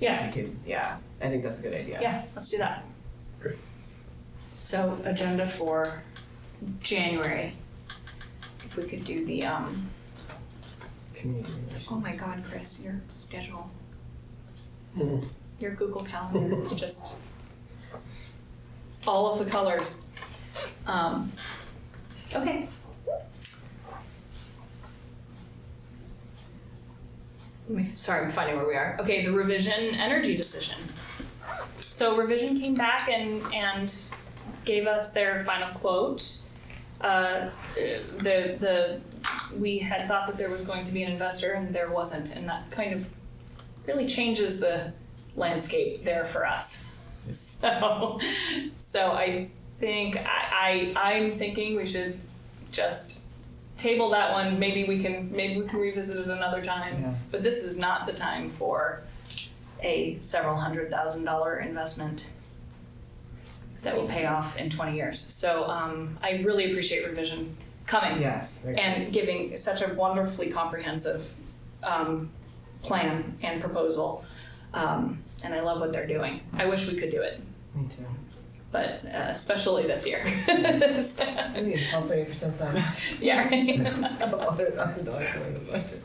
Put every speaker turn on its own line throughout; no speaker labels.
Yeah.
You could, yeah, I think that's a good idea.
Yeah, let's do that.
Great.
So agenda for January, if we could do the, um,
Community relations.
oh my God, Chris, your schedule.
Mm.
Your Google Calendar is just all of the colors. Um, okay. Let me- Sorry, I'm finding where we are. Okay, the revision energy decision. So revision came back and, and gave us their final quote. Uh, the, the, we had thought that there was going to be an investor and there wasn't, and that kind of really changes the landscape there for us. So, so I think, I, I, I'm thinking we should just table that one, maybe we can, maybe we can revisit it another time.
Yeah.
But this is not the time for a several hundred thousand dollar investment that will pay off in 20 years. So um, I really appreciate revision coming
Yes. they're-
and giving such a wonderfully comprehensive um, plan and proposal. Um, and I love what they're doing. I wish we could do it,
Me too.
but uh, especially this year.
I need a company for since I'm
yeah.
a hundred thousand dollars going to budget.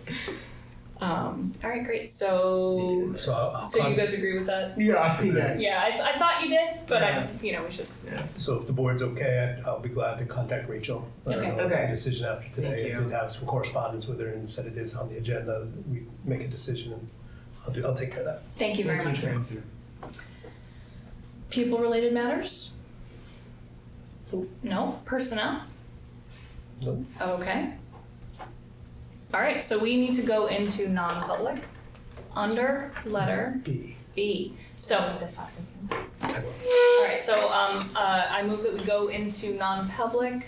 um, all right, great. So,
So I'll, I'll
so you
con-
guys agree with that?
Yeah,
yeah.
Yeah, I, I thought you did, but
Yeah.
I, you know, we should.
so if the board's okay, I'd- I'll be glad to contact Rachel. Let her
Okay.
know the
Okay.
decision after today.
Thank
I
you.
did have some correspondence with her and said it is on the agenda. We make a decision and I'll do, I'll take care of that.
Thank you very
Thank
much.
you.
Chris. People related matters? No. Personnel?
No.
Okay. All right, so we need to go into non-public under letter
B.
B. So,
I will.
all right, so um, uh, I move that we go into non-public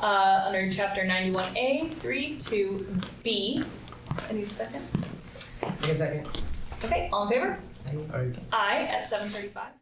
uh, under chapter 91A, 3 to B. I need a second.
Give a second.
Okay, all in favor?
I-
Aye at 7:35.